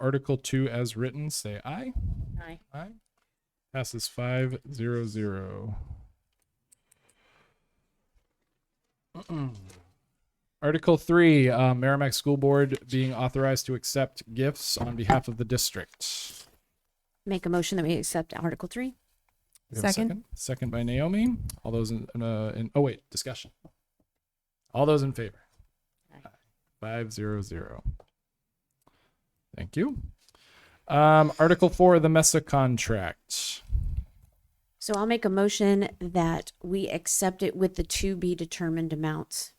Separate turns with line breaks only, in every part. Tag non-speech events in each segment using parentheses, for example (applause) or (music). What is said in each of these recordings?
Article 2 as written, say aye.
Aye.
Aye. Passes 5 0 0. (clears throat) Article 3 uh, Merrimack School Board being authorized to accept gifts on behalf of the district.
Make a motion that we accept Article Three.
We have a
Second.
second. Second by Naomi. All those in, uh, in oh wait, discussion. All those in favor.
Aye.
Five zero zero. Thank you. Um, Article four, the Mesa contract.
So I'll make a motion that we accept it with the to be determined amounts.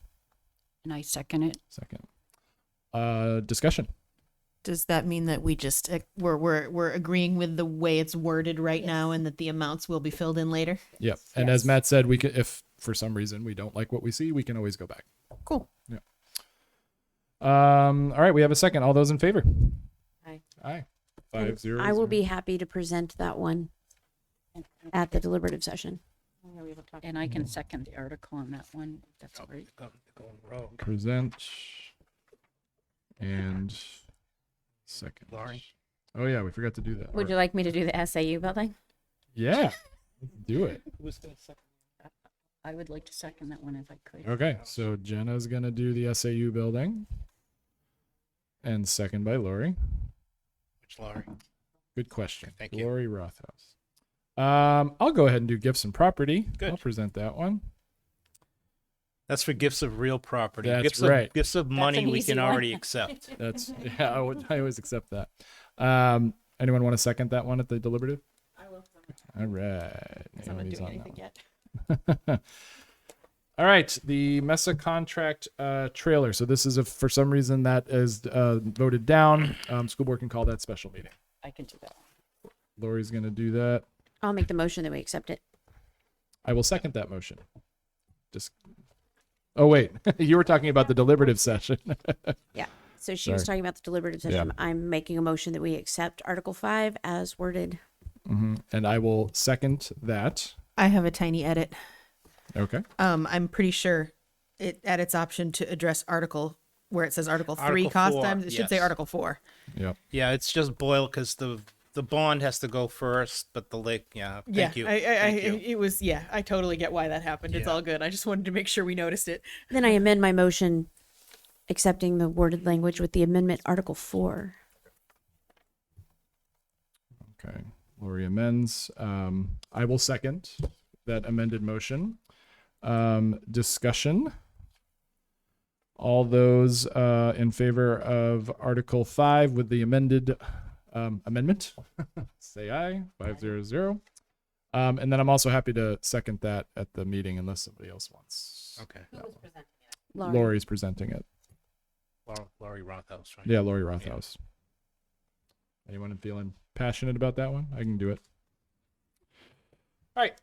And I second it.
Second. Uh, discussion.
Does that mean that we just uh, we're we're we're agreeing with the way it's worded right now, and that the amounts will be filled in later?
Yep. And as Matt said, we could, if for some reason we don't like what we see, we can always go back.
Cool.
Um, all right, we have a second. All those in favor.
Aye.
Aye.
And
Five zero.
I will
zero.
be happy to present that one at the deliberative session.
And I
Mm-hmm.
can second the article on that one. if That's great.
present and second. Oh yeah, we forgot to do that.
Would
Or-
you like me to do the SAU building?
yeah. let's Do it.
I would like to second that one if I could.
Okay. So Jenna's gonna do the SAU building. And second by Lori.
Which Laurie?
Good question.
Thank you.
Lori Rothaus. Um, I'll go ahead and do gifts and property. I'll
Good.
present that one.
That's for gifts of real property.
That's
gifts
right.
Of, gifts of money
an
we
easy
can
one.
already accept.
That's (laughs) yeah, I, would, I always accept that. Um, anyone want to second that one at the deliberative? I will. All right. Naomi's on that one.
yet.
(laughs) All right, the Mesa contract uh, trailer. So this is if for some reason that is uh, voted down, um, school board can call that special meeting.
I can do that.
Lori's going to do that.
I'll make the motion that we accept it.
I will second that motion. Just. Oh wait, (laughs) you were talking about the deliberative session. (laughs)
Yeah. So she was
Sorry.
talking about the deliberative
Yeah.
session. I'm making a motion that we accept Article Five as worded.
Mhm. And I will second that.
I have a tiny edit.
Okay.
Um, I'm pretty sure it at its option to address article where it says Article Three
Article
cost
four,
times. It should say
yes.
Article Four.
Yep.
Yeah, it's just boil because the the bond has to go first, but the lake. Yeah, thank
yeah,
you.
I, I,
thank
I,
you.
it was yeah. I totally get why that happened. It's
Yeah.
all good. I just wanted to make sure we noticed it.
Then I amend my motion accepting the worded language with the amendment Article Four.
Okay. Lori amends. Um, I will second that amended motion. Um, discussion. All those uh, in favor of Article 5 with the amended um, amendment, (laughs) say aye. 500. Um, and then I'm also happy to second that at the meeting unless somebody else wants.
okay.
Lauren.
Lori's presenting it.
Lau- Laurie Rothaus, right?
Yeah, Lori Rothaus. Anyone feeling passionate about that one? I can do it. All right.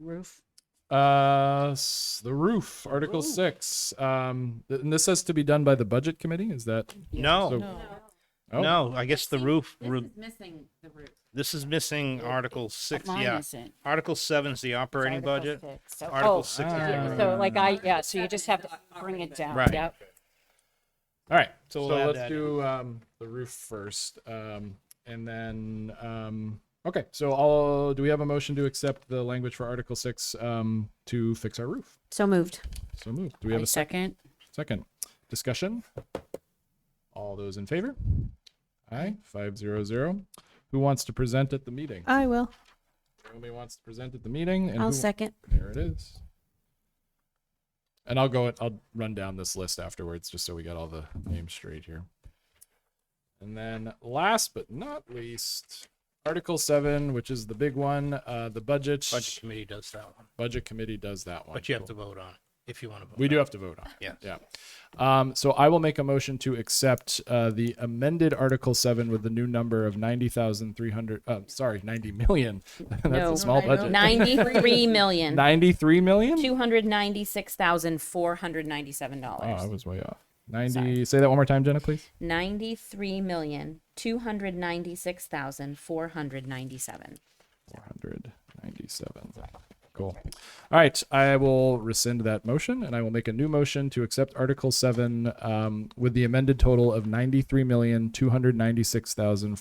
Roof.
Uh, s- the roof, Article Six. Um, th- and this has to be done by the Budget Committee. Is that?
No,
So- Oh,
no. I guess the roof. roo-
missing the roof.
This is missing Article Six.
Mine
Yeah,
isn't.
Article Seven is the operating budget.
oh,
Article
Article
six.
six. Yeah, So like I, yeah, so you just have to bring it down.
Right.
Yep.
All right. So,
So we'll add
let's
that
do um the roof first. Um, and then um. Okay. So I'll. Do we have a motion to accept the language for Article Six? Um, to fix our roof.
So moved.
So moved. Do we have
I
a second? Second
second.
discussion. All those in favor? Aye. Five zero zero. Who wants to present at the meeting?
I will.
Naomi wants to present at the meeting. And
I'll
who- (laughs)
second.
There it is. And I'll go, I'll run down this list afterwards just so we got all the names straight here. And then last but not least, Article 7, which is the big one, uh, the budget.
Budget committee does that one,
Budget committee does that one.
but you have to vote on it if you want to vote.
We
on
do
it.
have to vote on. it.
Yes.
Yeah. Um, so I will make a motion to accept uh, the amended Article Seven with the new number of ninety thousand three hundred. Uh, sorry, ninety million. (laughs) That's
No.
a small
(laughs)
budget.
Ninety-three million,
Ninety-three million.
two hundred ninety-six thousand, four hundred ninety-seven
Oh, I
dollars.
was way off. Ninety. Say that one more time, Jenna, please.
Ninety-three million, two hundred ninety-six thousand, four hundred ninety-seven.
Four hundred ninety-seven. Cool. All right, I will rescind that motion and I will make a new motion to accept Article 7 um, with the amended total of ninety-three million two hundred ninety-six thousand.